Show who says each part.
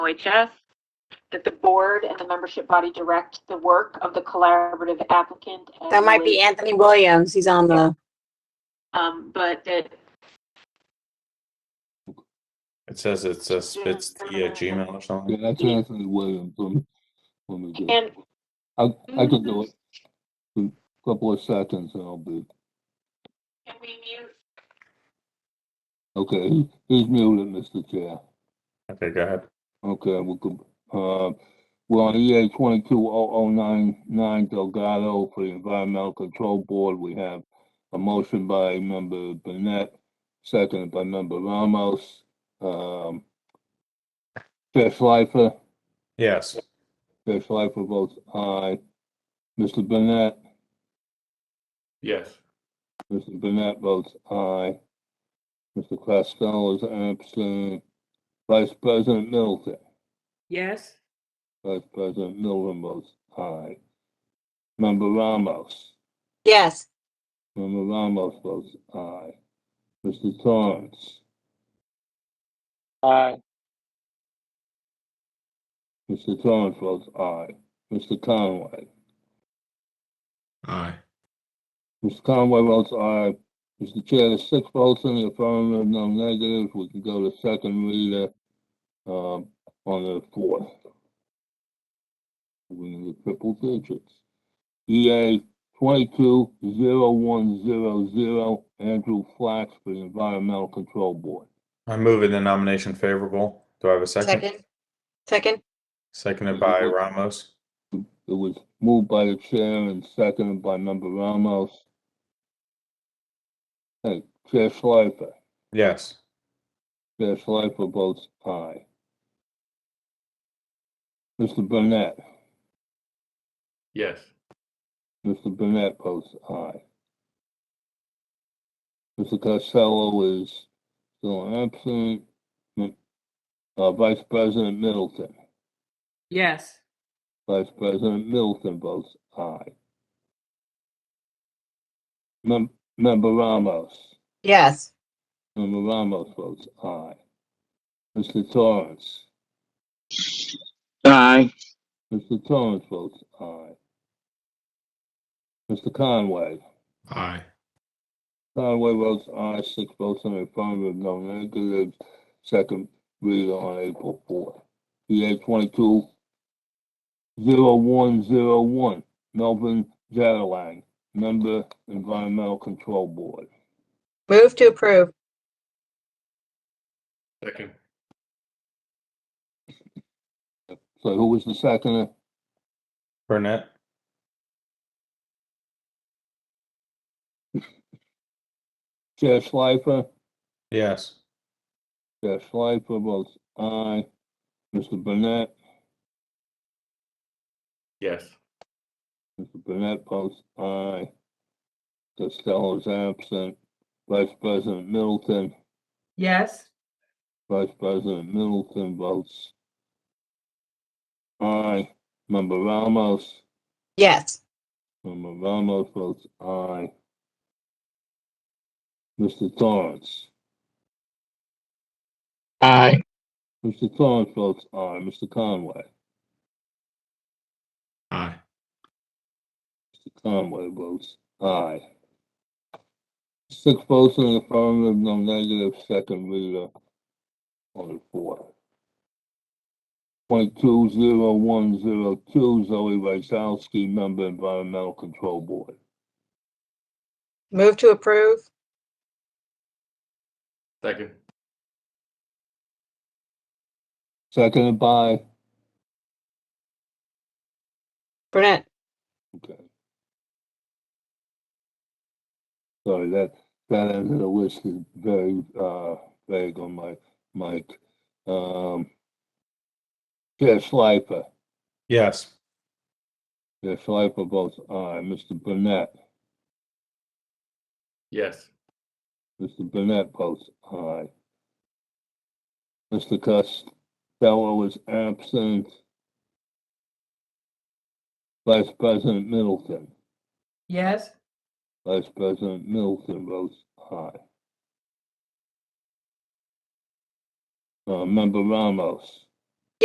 Speaker 1: OHS, that the board and the membership body direct the work of the collaborative applicant. and
Speaker 2: That might be
Speaker 1: relate-
Speaker 2: Anthony Williams. He's on the,
Speaker 1: Um, but that,
Speaker 3: It says it's a spits yeah Gmail or
Speaker 4: Yeah,
Speaker 3: something.
Speaker 4: that's Anthony Williams. Let me, let me do it.
Speaker 1: and,
Speaker 4: I, I can do it. in a Couple of seconds and I'll be,
Speaker 1: can we mute?
Speaker 4: okay, he- he's muted, Mr. Chair.
Speaker 3: Okay, go ahead.
Speaker 4: Okay, we'll, go- uh, we're on EA twenty-two oh oh nine nine Delgado for the Environmental Control Board. We have a motion by member Burnett, seconded by member Ramos. Um, Chair Schleifer,
Speaker 3: Yes.
Speaker 4: Chair Schleifer votes aye. Mr. Burnett?
Speaker 3: Yes.
Speaker 4: Mr. Burnett votes aye. Mr. Costello is absent. Vice President Middleton,
Speaker 5: Yes,
Speaker 4: Vice President Middleton votes aye. Member Ramos,
Speaker 2: yes,
Speaker 4: Member Ramos votes aye. Mr. Torrance,
Speaker 6: Aye.
Speaker 4: Mr. Torrance votes aye. Mr. Conway,
Speaker 7: Aye.
Speaker 4: Mr. Conway votes aye. Mr. Chair, there's six votes in the affirmative, no negatives. We can go to second reader, um, on the fourth. We're in the triple digits. EA twenty-two zero one zero zero, Andrew Flax for the Environmental Control Board.
Speaker 3: I move in the nomination favorable. Do I have a second?
Speaker 2: second, second,
Speaker 3: Seconded by Ramos.
Speaker 4: It was moved by the chair and seconded by member Ramos. Hey, Chair Schleifer,
Speaker 3: Yes.
Speaker 4: Chair Schleifer votes aye. Mr. Burnett?
Speaker 7: Yes.
Speaker 4: Mr. Burnett votes aye. Mr. Costello is still absent. M- Uh, Vice President Middleton,
Speaker 5: yes,
Speaker 4: Vice President Middleton votes aye. Mem- Member Ramos,
Speaker 2: yes,
Speaker 4: Member Ramos votes aye. Mr. Torrance,
Speaker 6: Aye.
Speaker 4: Mr. Torrance votes aye. Mr. Conway,
Speaker 7: Aye.
Speaker 4: Conway votes aye, six votes in the affirmative, no negatives. Second reader on April fourth. EA twenty-two zero one zero one, Melvin Jadalang, member Environmental Control Board.
Speaker 2: move to approve,
Speaker 7: Second.
Speaker 4: So who was the second?
Speaker 3: Burnett.
Speaker 4: Chair Schleifer?
Speaker 3: Yes.
Speaker 4: Chair Schleifer votes aye. Mr. Burnett?
Speaker 7: Yes.
Speaker 4: Mr. Burnett votes aye. Costello is absent. Vice President Middleton?
Speaker 5: yes,
Speaker 4: Vice President Middleton votes aye. Member Ramos,
Speaker 2: yes,
Speaker 4: Member Ramos votes aye. Mr. Torrance,
Speaker 6: Aye.
Speaker 4: Mr. Torrance votes aye. Mr. Conway,
Speaker 7: Aye.
Speaker 4: Mr. Conway votes aye. Six votes in the affirmative, no negative, second reader on the fourth. Twenty-two zero one zero two, Zoe Rysowski, Member Environmental Control Board.
Speaker 2: move to approve,
Speaker 7: Second.
Speaker 4: Seconded by,
Speaker 2: Burnett,
Speaker 4: okay. Sorry, that, that end of the list is very, uh, vague on my, mic. Um, Chair Schleifer,
Speaker 3: Yes.
Speaker 4: Chair Schleifer votes aye. Mr. Burnett,
Speaker 7: Yes.
Speaker 4: Mr. Burnett votes aye. Mr. Costello is absent. Vice President Middleton.
Speaker 5: yes,
Speaker 4: Vice President Middleton votes aye. Uh, Member Ramos,